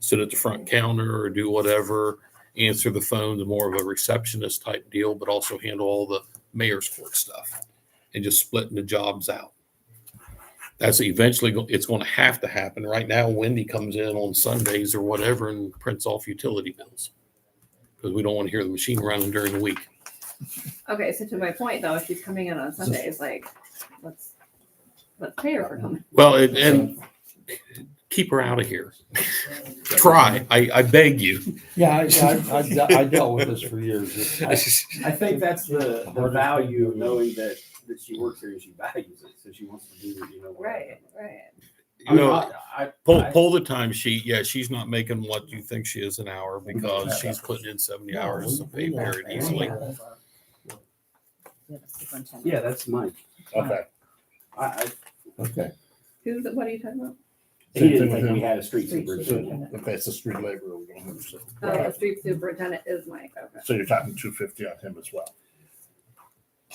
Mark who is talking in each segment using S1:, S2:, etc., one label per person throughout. S1: sit at the front counter or do whatever, answer the phone, the more of a receptionist type deal, but also handle all the mayor's court stuff and just splitting the jobs out. That's eventually, go- it's going to have to happen. Right now, Wendy comes in on Sundays or whatever and prints off utility bills because we don't want to hear the machine running during the week.
S2: Okay, so to my point though, if she's coming in on Sundays, like, let's, let's pay her for coming.
S1: Well, and, and keep her out of here. Try, I, I beg you.
S3: Yeah, I, I, I, I dealt with this for years. It's- I-
S4: I think that's the, the value of knowing that, that she works here and she values it, so she wants to do it, you know.
S2: Right, right.
S4: I
S1: You
S4: mean,
S1: know,
S4: I, I,
S1: pull, pull the time sheet. Yeah, she's not making what you think she is an hour because she's putting in seventy hours of pay period easily.
S4: yeah, that's mine.
S5: Okay.
S4: I, I,
S5: Okay.
S2: Who's, what are you talking about?
S4: he didn't think we had a street superintendent.
S5: Okay, it's a street laborer. we're gonna have, so-
S2: Oh, the street superintendent is Mike, okay.
S5: So you're talking two fifty on him as well.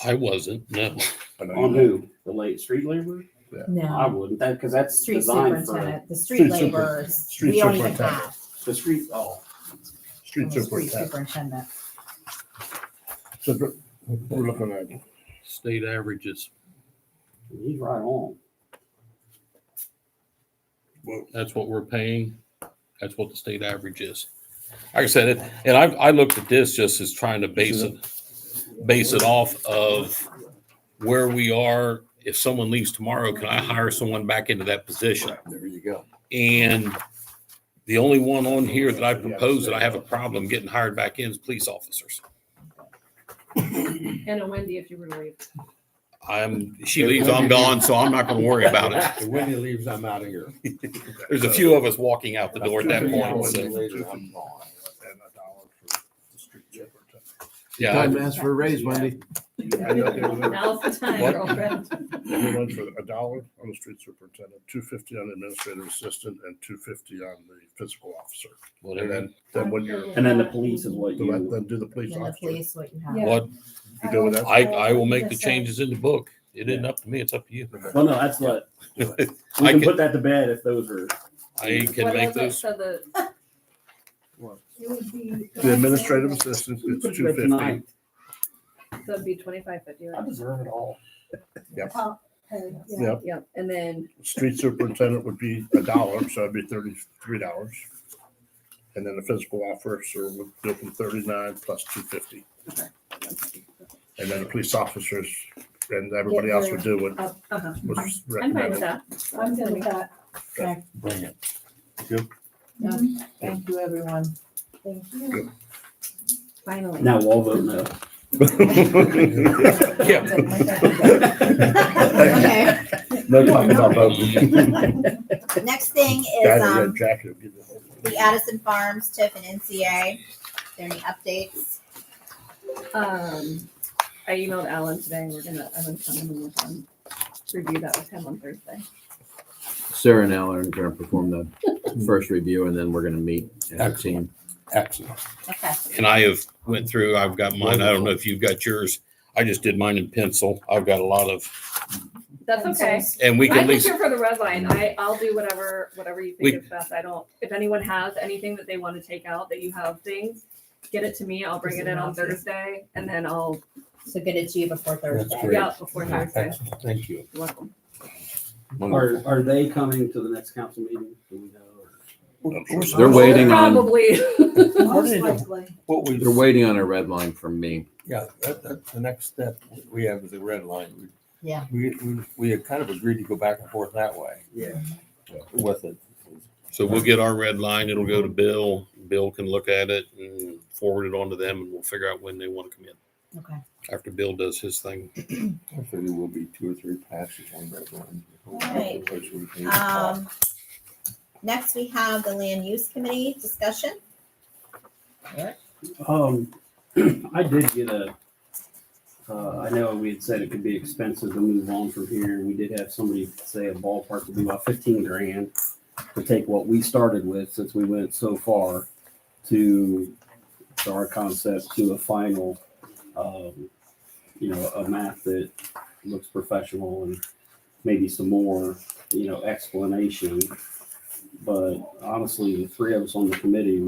S1: I wasn't, no.
S5: I know
S4: On
S5: you-
S4: who? The late street laborer? I
S6: No,
S4: wouldn't, that, cause that's
S6: Uh-huh. street
S4: designed for
S6: superintendent, the street
S5: Street super-
S6: laborers,
S5: street
S6: we don't even
S5: superintendent.
S6: have.
S4: the street, oh,
S5: Street
S6: a street
S5: superintendent.
S6: Superintendent.
S5: So dr- we're looking at,
S1: State averages,
S4: he's right on.
S5: well,
S1: that's what we're paying. That's what the state average is. Like I said, it- and I, I looked at this just as trying to base it, base it off of where we are. If someone leaves tomorrow, can I hire someone back into that position?
S5: there you go.
S1: And the only one on here that I propose that I have a problem getting hired back in is police officers.
S2: And a Wendy if you were to leave.
S1: I'm, she leaves, I'm gone, so I'm not gonna worry about it.
S3: If Wendy leaves, I'm out of here.
S1: There's a few of us walking out the door at that point.
S3: so-
S5: Later, I'm gone. And a dollar for the street superintendent.
S1: Yeah,
S3: Time to ask for a raise, Wendy.
S5: I know.
S2: Now's the time,
S5: What?
S2: girlfriend.
S5: Everyone for a dollar on the street superintendent, two fifty on the administrative assistant, and two fifty on the fiscal officer. And
S1: whatever.
S5: then, then when you're,
S4: And then the police is what
S5: do I
S4: you,
S5: then do the police
S6: In the
S5: officer?
S6: police, what you have.
S2: Yeah.
S1: What,
S5: You go with that?
S1: I, I will make the changes in the book. It isn't up to me, it's up to you.
S4: well, no, that's what, we
S1: I
S4: can
S1: can-
S4: put that to bed if those are.
S1: I
S2: What
S1: can make
S2: was it?
S1: those,
S2: So the,
S6: It would be.
S5: The administrative assistant gets two fifty.
S2: so it'd be twenty-five fifty, right?
S4: deserve it all.
S5: Yep.
S2: Yep, and then,
S5: Street superintendent would be a dollar, so it'd be thirty-three dollars. And then the physical officer would go from thirty-nine plus two fifty. And then the police officers and everybody else would do what
S2: uh-huh,
S5: was
S2: I'm fine with
S5: recommended.
S2: that.
S6: I'm good with that.
S5: Bring it.
S6: Mm-hmm. Thank you, everyone. Thank you.
S2: Finally.
S4: Now we'll all vote no.
S1: yeah,
S6: Okay,
S5: No talk about voting.
S7: Next thing
S5: Guy in
S7: is
S5: the
S7: um,
S5: red jacket will give you the whole.
S7: the Addison Farms TIF and NCA. There any updates?
S2: Um, I emailed Alan today, we're gonna, I'm gonna come in and work on, review that with him on Thursday.
S8: Sarah and Alan are gonna perform the first review and then we're gonna meet as a team.
S3: Excellent.
S7: Okay.
S1: and I have went through, I've got mine, I don't know if you've got yours. I just did mine in pencil. I've got a lot of,
S2: That's okay.
S1: and we can
S2: I'm
S1: at
S2: just
S1: least,
S2: here for the red line. I, I'll do whatever, whatever you
S1: We-
S2: think is best. I don't, if anyone has anything that they want to take out that you have things, get it to me. I'll bring it in on Thursday and then I'll
S7: So get it to you before
S3: Thursday.
S2: be out before Thursday.
S3: Excellent. Thank you.
S2: You're welcome.
S4: Are, are they coming to the next council meeting? Do we know?
S8: They're waiting on,
S2: Probably.
S3: Most likely. What we,
S8: they're waiting on a red line from me.
S3: yeah, that, that's the next step we have is the red line. We-
S6: Yeah.
S3: We, we, we had kind of agreed to go back and forth that way
S4: Yeah.
S3: with it.
S1: so we'll get our red line. It'll go to Bill. Bill can look at it and forward it on to them and we'll figure out when they want to come in.
S6: Okay.
S1: After Bill does his thing.
S5: Hopefully there will be two or three passes on red
S7: Right. Um, next we have the land use committee discussion.
S4: Um, I did get a, uh, I know we had said it could be expensive to move on from here. We did have somebody say a ballpark would be about fifteen grand to take what we started with, since we went so far, to, to our concept, to a final, um, you know, a map that looks professional and maybe some more, you know, explanation But honestly, the three of us on the committee,